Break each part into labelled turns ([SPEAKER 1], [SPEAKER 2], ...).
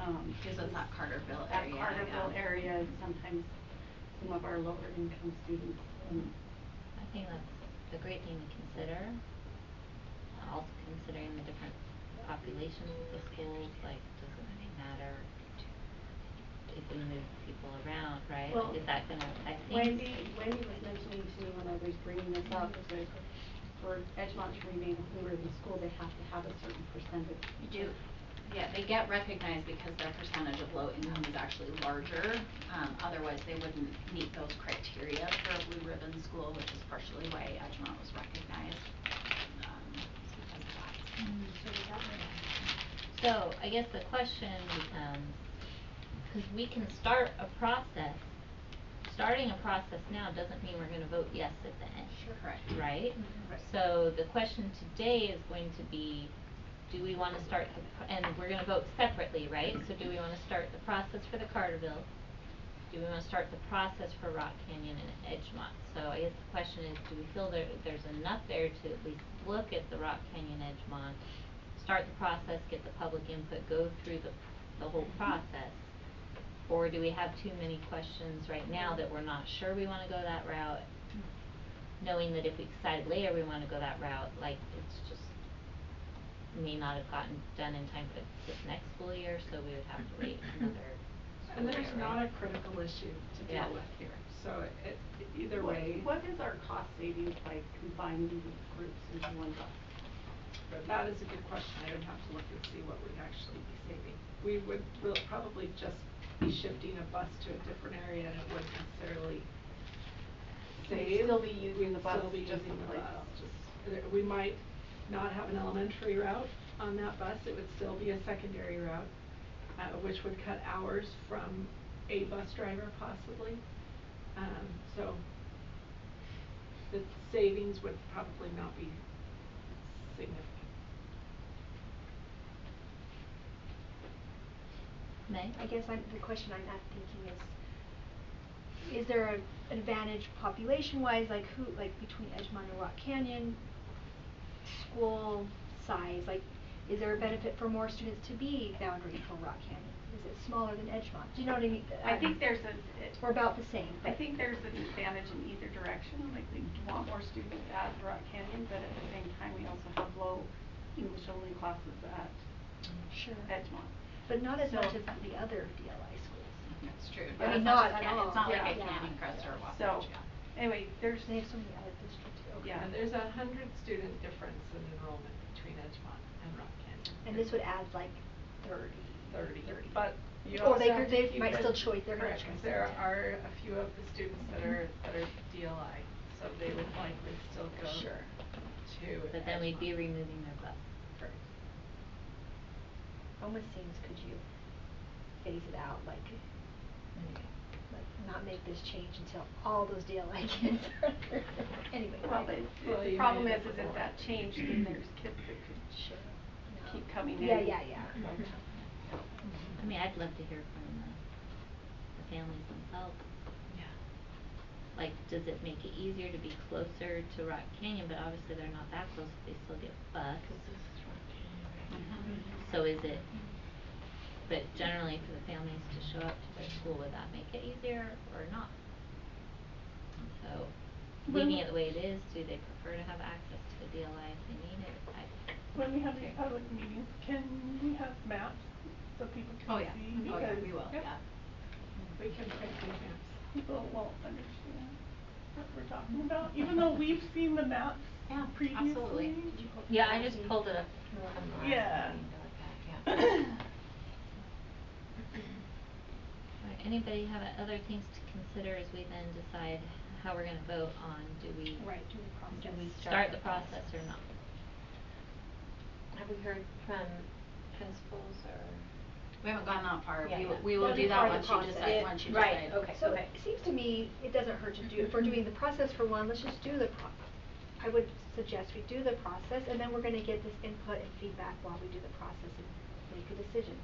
[SPEAKER 1] um,
[SPEAKER 2] So it's that Carterville
[SPEAKER 1] that
[SPEAKER 2] area,
[SPEAKER 1] Carterville
[SPEAKER 2] yeah.
[SPEAKER 1] area and sometimes some of our lower income students and
[SPEAKER 3] I think that's a great thing to consider. Uh, Also considering the different populations of the schools, like, does it really matter if we move people around, right?
[SPEAKER 1] Well,
[SPEAKER 3] Like, is that gonna affect things?
[SPEAKER 1] Wendy, Wendy was mentioning to me when I was bringing this up, is that for Edgemont to remain a Blue Ribbon school, they have to have a certain percentage.
[SPEAKER 2] You do, yeah, they get recognized because their percentage of low income is actually larger. Um, otherwise, they wouldn't meet those criteria for a blue ribbon school, which is partially why Edgemont was recognized. Um, it's because of that.
[SPEAKER 1] Mm-hmm.
[SPEAKER 3] So I guess the question becomes, cause we can start a process, starting a process now doesn't mean we're gonna vote yes at the end.
[SPEAKER 2] Correct.
[SPEAKER 3] Right? So the question today is going to be, do we wanna start the, pr- and we're gonna vote separately, right? So do we wanna start the process for the Carterville? Do we wanna start the process for Rock Canyon and Edgemont? So I guess the question is, do we feel there, there's enough there to at least look at the Rock Canyon Edgemont, start the process, get the public input, go through the, the whole process? Or do we have too many questions right now that we're not sure we wanna go that route? Knowing that if we decide later we wanna go that route, like, it's just may not have gotten done in time for this next school year, so we would have to wait another school
[SPEAKER 4] And
[SPEAKER 3] year,
[SPEAKER 4] there's not a
[SPEAKER 3] right?
[SPEAKER 4] critical issue to
[SPEAKER 3] Yeah.
[SPEAKER 4] deal with here, so it, it- either
[SPEAKER 1] What-
[SPEAKER 4] way,
[SPEAKER 1] What is our cost savings by combining these groups into one bus?
[SPEAKER 4] that is a good question, I would have to look and see what we'd actually be saving. We would, we'll probably just be shifting a bus to a different area and it wouldn't necessarily
[SPEAKER 1] We'd
[SPEAKER 4] save.
[SPEAKER 1] still be using the bus,
[SPEAKER 4] We'd still be
[SPEAKER 1] just
[SPEAKER 4] using the
[SPEAKER 1] like-
[SPEAKER 4] bus, just, there- we might not have an elementary route on that bus, it would still be a secondary route, uh, which would cut hours from a bus driver possibly. Um, so the savings would probably not be significant.
[SPEAKER 3] May?
[SPEAKER 5] I guess I'm, the question I'm at thinking is, is there an advantage population-wise, like who, like between Edgemont and Rock Canyon, school size, like, is there a benefit for more students to be boundary for Rock Canyon? Is it smaller than Edgemont? Do you know what I mean?
[SPEAKER 1] I think there's a, it,
[SPEAKER 5] We're about the same,
[SPEAKER 1] I
[SPEAKER 5] but-
[SPEAKER 1] think there's an advantage in either direction, like we want more students at Rock Canyon, but at the same time, we also have low English only classes at
[SPEAKER 5] Sure.
[SPEAKER 1] Edgemont.
[SPEAKER 5] But not as
[SPEAKER 1] So-
[SPEAKER 5] much as the other DLI schools.
[SPEAKER 2] That's true.
[SPEAKER 5] I mean,
[SPEAKER 2] It's not
[SPEAKER 5] not at
[SPEAKER 2] Can-
[SPEAKER 5] all.
[SPEAKER 2] It's not like
[SPEAKER 1] Yeah.
[SPEAKER 2] a
[SPEAKER 1] Yeah.
[SPEAKER 2] Canyon Crest or a Wasatch,
[SPEAKER 1] So,
[SPEAKER 2] yeah.
[SPEAKER 1] anyway, there's,
[SPEAKER 5] They have so many out of district too.
[SPEAKER 1] Yeah.
[SPEAKER 4] And there's a hundred student difference in enrollment between Edgemont and Rock Canyon.
[SPEAKER 5] And this would add like thirty.
[SPEAKER 4] Thirty, but you
[SPEAKER 5] Or
[SPEAKER 4] also
[SPEAKER 5] they
[SPEAKER 4] have
[SPEAKER 5] could- they
[SPEAKER 4] a few
[SPEAKER 5] might
[SPEAKER 4] that-
[SPEAKER 5] still choice- they're gonna
[SPEAKER 4] correct, 'cause
[SPEAKER 5] choice
[SPEAKER 4] there
[SPEAKER 5] it.
[SPEAKER 4] are a few of the students that are, that are DLI, so they would likely still go
[SPEAKER 5] Sure.
[SPEAKER 4] to
[SPEAKER 3] But then we'd be
[SPEAKER 4] Edgemont.
[SPEAKER 3] removing their bus.
[SPEAKER 4] Correct.
[SPEAKER 5] Almost seems could you phase it out, like, like not make this change until all those DLI kids are under, anyway.
[SPEAKER 1] well, the,
[SPEAKER 4] Well,
[SPEAKER 1] the
[SPEAKER 4] you
[SPEAKER 1] problem
[SPEAKER 4] made
[SPEAKER 1] is,
[SPEAKER 4] it
[SPEAKER 1] is if
[SPEAKER 4] before.
[SPEAKER 1] that changed, then there's kids that could
[SPEAKER 5] Sure. No.
[SPEAKER 1] keep coming in.
[SPEAKER 5] Yeah, yeah, yeah.
[SPEAKER 1] So-
[SPEAKER 4] Mm-hmm.
[SPEAKER 3] I mean, I'd love to hear from the, the families themselves.
[SPEAKER 4] Yeah.
[SPEAKER 3] Like, does it make it easier to be closer to Rock Canyon, but obviously they're not that close, they still get bus. Mm-hmm.
[SPEAKER 2] Mhm.
[SPEAKER 3] So is it, but generally for the families to show up to their school, would that make it easier or not? So, leaving it the way it is, do they prefer to have access to the DLI if they need it? I,
[SPEAKER 6] When we have these public meetings, can we have maps so people
[SPEAKER 2] Oh,
[SPEAKER 6] can
[SPEAKER 2] yeah.
[SPEAKER 6] see?
[SPEAKER 2] Oh, yeah,
[SPEAKER 6] Because
[SPEAKER 2] we will,
[SPEAKER 4] Yep.
[SPEAKER 2] yeah.
[SPEAKER 4] We can print these maps.
[SPEAKER 6] People won't understand what we're talking about, even though we've seen the maps
[SPEAKER 2] Yeah,
[SPEAKER 6] previously.
[SPEAKER 2] absolutely.
[SPEAKER 3] Yeah, I just pulled it up from the last
[SPEAKER 6] Yeah.
[SPEAKER 3] meeting to look at, yeah. Alright, anybody have uh, other things to consider as we then decide how we're gonna vote on, do we
[SPEAKER 5] Right, do the process.
[SPEAKER 3] do we start the process or not?
[SPEAKER 7] Have we heard from principals or?
[SPEAKER 2] We haven't gone that far.
[SPEAKER 7] Yeah,
[SPEAKER 2] We will,
[SPEAKER 7] yeah.
[SPEAKER 2] we will
[SPEAKER 5] That'll
[SPEAKER 2] do
[SPEAKER 5] be
[SPEAKER 2] that
[SPEAKER 5] part of
[SPEAKER 2] once
[SPEAKER 5] the
[SPEAKER 2] you decide,
[SPEAKER 5] process.
[SPEAKER 2] once you decide.
[SPEAKER 7] Right, okay.
[SPEAKER 5] So it seems to me, it doesn't hurt to do, if we're doing the process for one, let's just do the pro- I would suggest we do the process, and then we're gonna get this input and feedback while we do the process and make a decision.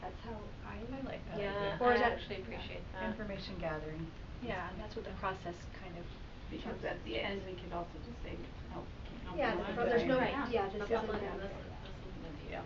[SPEAKER 5] That's how I
[SPEAKER 7] I like
[SPEAKER 4] that idea.
[SPEAKER 7] Yeah,
[SPEAKER 5] Or
[SPEAKER 7] I
[SPEAKER 5] is that-
[SPEAKER 7] actually appreciate that.
[SPEAKER 8] Information gathering.
[SPEAKER 5] Yeah, and that's what the process kind of,
[SPEAKER 1] Because at the end, we could also just say, no, no.
[SPEAKER 5] Yeah,
[SPEAKER 1] we
[SPEAKER 5] the
[SPEAKER 1] don't
[SPEAKER 5] pro-
[SPEAKER 1] do it.
[SPEAKER 5] there's no-
[SPEAKER 2] Right.
[SPEAKER 5] yeah, this
[SPEAKER 2] The
[SPEAKER 5] isn't
[SPEAKER 2] public-
[SPEAKER 5] that.
[SPEAKER 2] this- this isn't gonna be-
[SPEAKER 1] Yeah.